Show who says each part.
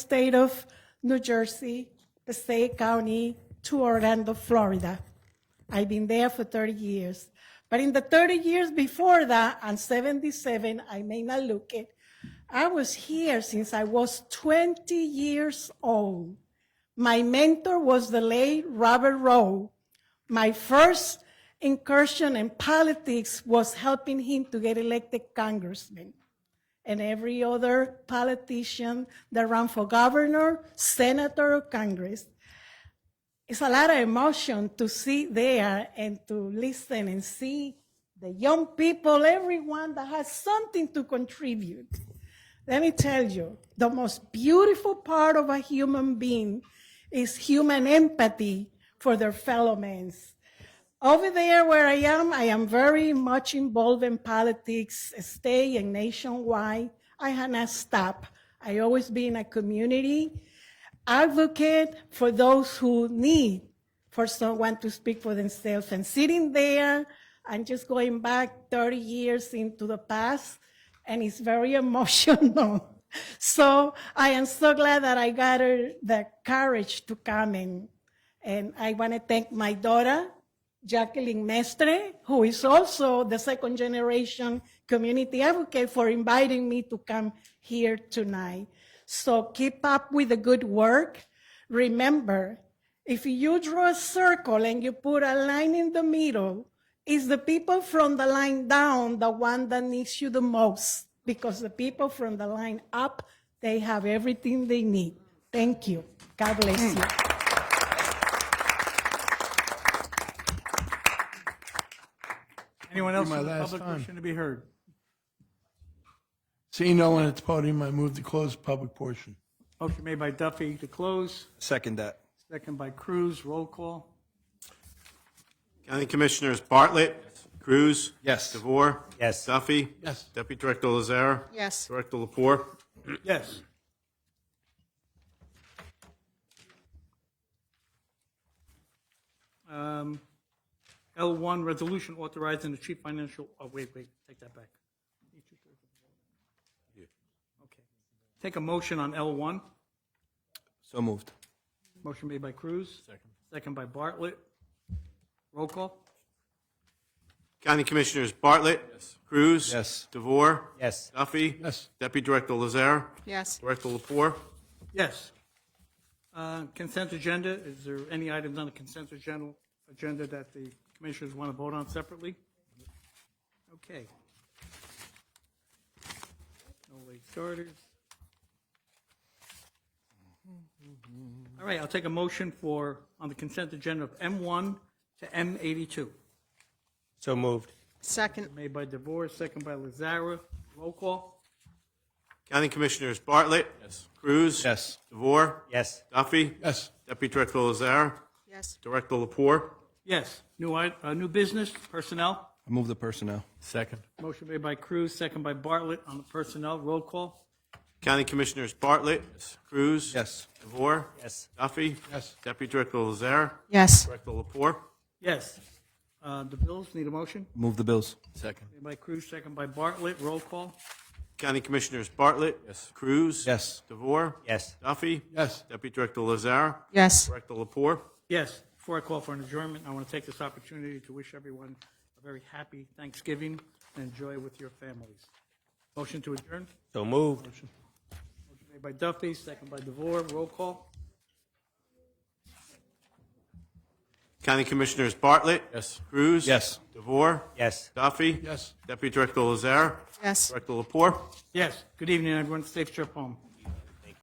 Speaker 1: state of New Jersey, the state county to Orlando, Florida. I've been there for 30 years. But in the 30 years before that, I'm 77, I may not look it. I was here since I was 20 years old. My mentor was the late Robert Rowe. My first incursion in politics was helping him to get elected congressman and every other politician that ran for governor, senator, or Congress. It's a lot of emotion to sit there and to listen and see the young people, everyone that has something to contribute. Let me tell you, the most beautiful part of a human being is human empathy for their fellow men. Over there where I am, I am very much involved in politics, state and nationwide. I have not stopped. I always been a community advocate for those who need for someone to speak for themselves. And sitting there, I'm just going back 30 years into the past, and it's very emotional. so I am so glad that I gathered the courage to come in. And I want to thank my daughter, Jacqueline Mestre, who is also the second generation community advocate, for inviting me to come here tonight. So keep up with the good work. Remember, if you draw a circle and you put a line in the middle, it's the people from the line down the one that needs you the most because the people from the line up, they have everything they need. Thank you. God bless you.
Speaker 2: Anyone else
Speaker 3: my
Speaker 2: in the
Speaker 3: last
Speaker 2: public
Speaker 3: time.
Speaker 2: wishing to be heard?
Speaker 3: Seeing no one at the podium, I move to close the public portion.
Speaker 2: Motion made by Duffy to close,
Speaker 4: Second that.
Speaker 2: second by Cruz, roll call.
Speaker 5: County Commissioners Bartlett, Cruz.
Speaker 4: Yes.
Speaker 5: DeVore.
Speaker 4: Yes.
Speaker 5: Duffy.
Speaker 3: Yes.
Speaker 5: Deputy Director Lazara.
Speaker 6: Yes.
Speaker 5: Director Lapore.
Speaker 2: Yes. Um, L1, resolution authorizing the chief financial, oh, wait, wait, take that back. Okay. Take a motion on L1.
Speaker 4: So moved.
Speaker 2: Motion made by Cruz. Second. Second by Bartlett. Roll call.
Speaker 5: County Commissioners Bartlett. Cruz.
Speaker 4: Yes.
Speaker 5: DeVore.
Speaker 4: Yes.
Speaker 5: Duffy.
Speaker 3: Yes.
Speaker 5: Deputy Director Lazara.
Speaker 6: Yes.
Speaker 5: Director Lapore.
Speaker 2: Yes. Uh, Consent agenda, is there any items on the consent agenda, agenda that the commissioners want to vote on separately? Okay. No late starters. All right, I'll take a motion for, on the consent agenda of M1 to M82,
Speaker 4: So moved.
Speaker 6: Second.
Speaker 2: made by DeVore, second by Lazara. Roll call?
Speaker 5: County Commissioners Bartlett. Yes. Cruz.
Speaker 4: Yes.
Speaker 5: DeVore.
Speaker 4: Yes.
Speaker 5: Duffy.
Speaker 3: Yes.
Speaker 5: Deputy Director Lazara.
Speaker 6: Yes.
Speaker 5: Director Lapore.
Speaker 2: Yes. New, i- uh, new business, personnel?
Speaker 4: I move the personnel.
Speaker 3: Second.
Speaker 2: Motion made by Cruz, second by Bartlett on the personnel. Roll call?
Speaker 5: County Commissioners Bartlett. Cruz.
Speaker 4: Yes.
Speaker 5: DeVore.
Speaker 4: Yes.
Speaker 5: Duffy.
Speaker 3: Yes.
Speaker 5: Deputy Director Lazara.
Speaker 6: Yes.
Speaker 5: Director Lapore.
Speaker 2: Yes. Uh, The bills need a motion?
Speaker 4: Move the bills.
Speaker 3: Second.
Speaker 2: Made by Cruz, second by Bartlett. Roll call?
Speaker 5: County Commissioners Bartlett. Yes. Cruz.
Speaker 4: Yes.
Speaker 5: DeVore.
Speaker 4: Yes.
Speaker 5: Duffy.
Speaker 3: Yes.
Speaker 5: Deputy Director Lazar.
Speaker 6: Yes.
Speaker 5: Director Lapore.
Speaker 2: Yes. Before I call for an adjournment, I want to take this opportunity to wish everyone a very happy Thanksgiving and enjoy with your families. Motion to adjourn?
Speaker 4: So moved.
Speaker 2: Made by Duffy, second by DeVore. Roll call?
Speaker 5: County Commissioners Bartlett.
Speaker 3: Yes.
Speaker 5: Cruz.
Speaker 4: Yes.
Speaker 5: DeVore.
Speaker 4: Yes.
Speaker 5: Duffy.
Speaker 3: Yes.
Speaker 5: Deputy Director Lazar.
Speaker 6: Yes.
Speaker 5: Director Lapore.
Speaker 2: Yes. Good evening, everyone. Safe trip home.